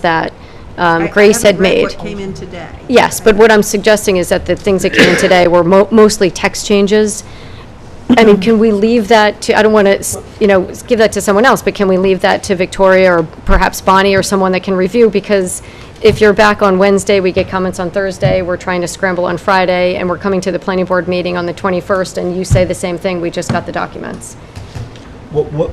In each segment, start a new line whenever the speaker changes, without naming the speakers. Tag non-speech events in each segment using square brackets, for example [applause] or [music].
that
I-
um,
I
Grace had
haven't read
made.
what came in today.
Yes, but what I'm suggesting is that the things that came in today were mo- mostly text changes. I mean, can we leave that to, I don't want to, you know, s- give that to someone else, but can we leave that to Victoria or perhaps Bonnie or someone that can review? Because if you're back on Wednesday, we get comments on Thursday, we're trying to scramble on Friday, and we're coming to the planning board meeting on the 21st, and you say the same thing, we just got the documents.
What, what,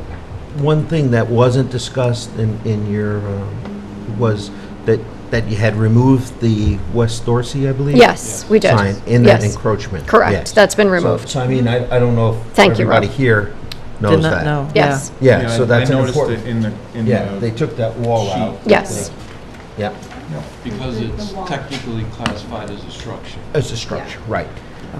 one thing that wasn't discussed in, in your, um, was that, that you had removed the West Dorsey, I believe?
Yes, we did.
Sign in that
Yes.
encroachment.
Correct.
yes.
That's been
So-
removed.
So I mean, I, I don't know if
Thank you, Rob.
everybody here knows
Did
that.
not know.
Yes,
Yeah, so that's an
I noticed it
important,
in the, in
yeah, they
the,
took that wall
sheet.
out.
yes,
Yeah,
Because it's technically classified as a structure.
as a structure, right.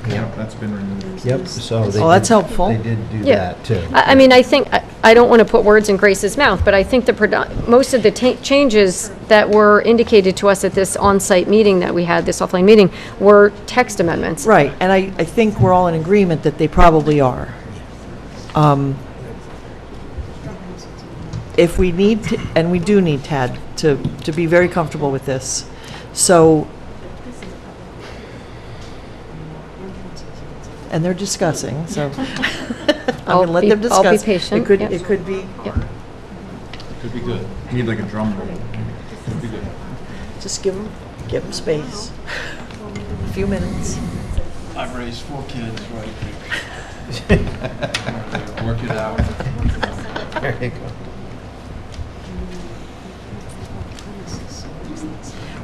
yeah, that's been removed.
Yep, so they.
Oh, that's
did-
helpful.
They did do
Yeah.
that too.
I, I mean, I think, I- I don't want to put words in Grace's mouth, but I think the, predo- most of the ta- changes that were indicated to us at this on-site meeting that we had, this offline meeting, were text amendments.
Right, and I, I think we're all in agreement that they probably are. Um, If we need, to- and we do need Tad to, to be very comfortable with this, so. And they're
[laughs]
discussing, so. I'm
I'll
going to let
be-
them
I'll
discuss.
be patient,
It could,
yep.
it could be,
Could be good,
You Need like a drum roll.
could be good.
just give them, give them space. A few minutes.
I've raised four kids, right? [laughs] Work it out.
There you go.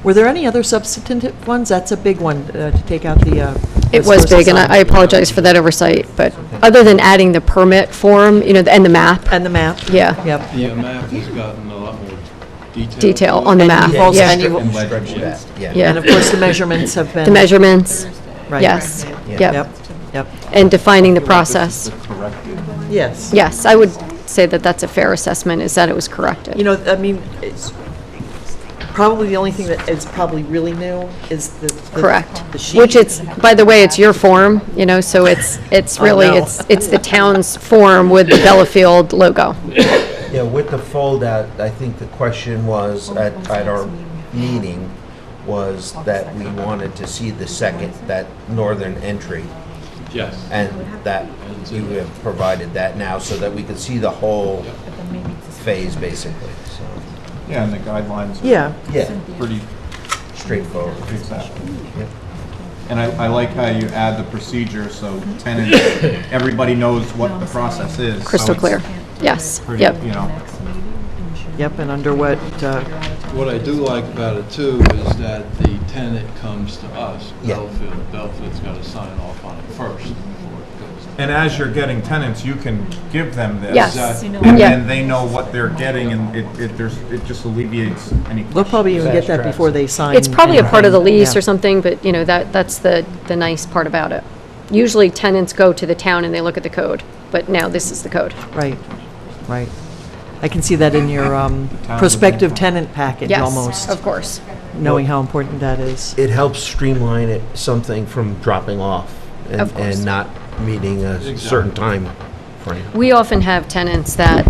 Were there any other substantive ones? That's a big one, uh, to take out the. uh,
It was big, and I I apologize for that oversight, but other than adding the permit form, you know, and the map,
And the map,
yeah,
yep.
The map has gotten a lot more detail.
detail on the map,
also-
yeah,
and you-
And stretch that, yeah.
Yeah.
And of course, the measurements have been.
the measurements,
right.
yes,
Yeah.
yep,
Yep, yep,
and defining the process.
Corrected.
yes.
Yes, I would say that that's a fair assessment, is that it was corrected.
You know, I mean, it's probably the only thing that is probably really new is the. the-
Correct.
The sheet.
Which it's, by the way, it's your form, you know, so it's, it's
Oh,
really,
no.
it's, it's the town's form with the Bellafield logo.
Yeah, with the foldout, I think the question was at, at our meeting was that we wanted to see the second, that northern entry.
Yes.
And that we have provided that now so that we could see the whole phase basically, so
Yeah, and the guidelines are
Yeah,
yeah,
pretty
straightforward.
exactly.
Yep.
And I, I like how you add the procedure, so tenants, everybody knows what the process is. so
Crystal
Oh,
it's
clear. Yes,
pretty,
yep.
You know,
yep, and under what, uh,
What I do like about it too is that the tenant comes to us,
Yeah.
Belfield. Belfield's got to sign off on it first before it goes.
and as you're getting tenants, you can give them this.
Yes.
And
Yeah.
then they know what they're getting and it, it, there's, it just alleviates any.
they'll probably even get that before they sign.
It's probably a part of the
anything.
lease
Yeah.
or something, but, you know, that, that's the, the nice part about it. Usually tenants go to the town and they look at the code, but now this is the code.
Right, right. I can see that in your um,
town
prospective
would-
tenant package
Yes,
almost,
of course.
knowing how important that is.
It helps streamline it, something from dropping off and,
Of course.
and not meeting a certain time frame.
We often have tenants that,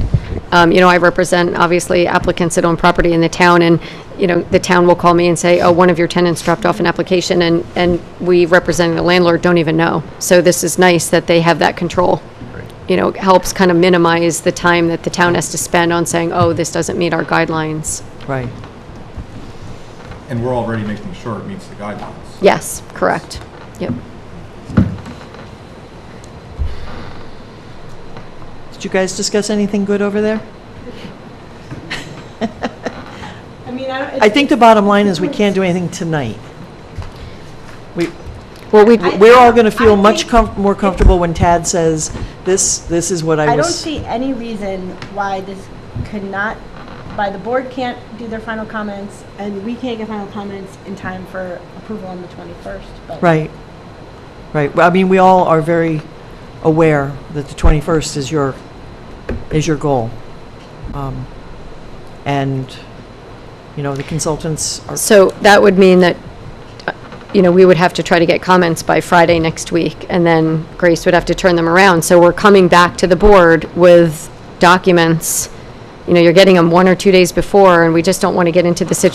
um, you know, I represent, obviously, applicants that own property in the town, and, you know, the town will call me and say, oh, one of your tenants dropped off an application, and, and we representing the landlord don't even know. So this is nice that they have that control. You know, it helps kind of minimize the time that the town has to spend on saying, oh, this doesn't meet our guidelines.
Right,
And we're already making sure it meets the guidelines.
Yes, correct. Yep.
did you guys discuss anything good over there?
I mean, I don't.
I think the bottom line is we can't do anything tonight. We,
Well, we,
we're all going to feel
I
much
think-
com- more comfortable when Tad says, this, this is what I
I don't
was.
see any reason why this could not, why the board can't do their final comments, and we can't get final comments in time for approval on the 21st, but.
Right, right. Well, I mean, we all are very aware that the 21st is your, is your goal. Um, And, you know, the consultants are,
So that would mean that, uh, you know, we would have to try to get comments by Friday next week, and then Grace would have to turn them around. So we're coming back to the board with documents you know, you're getting them one or two days before, and we just don't want to get into the situation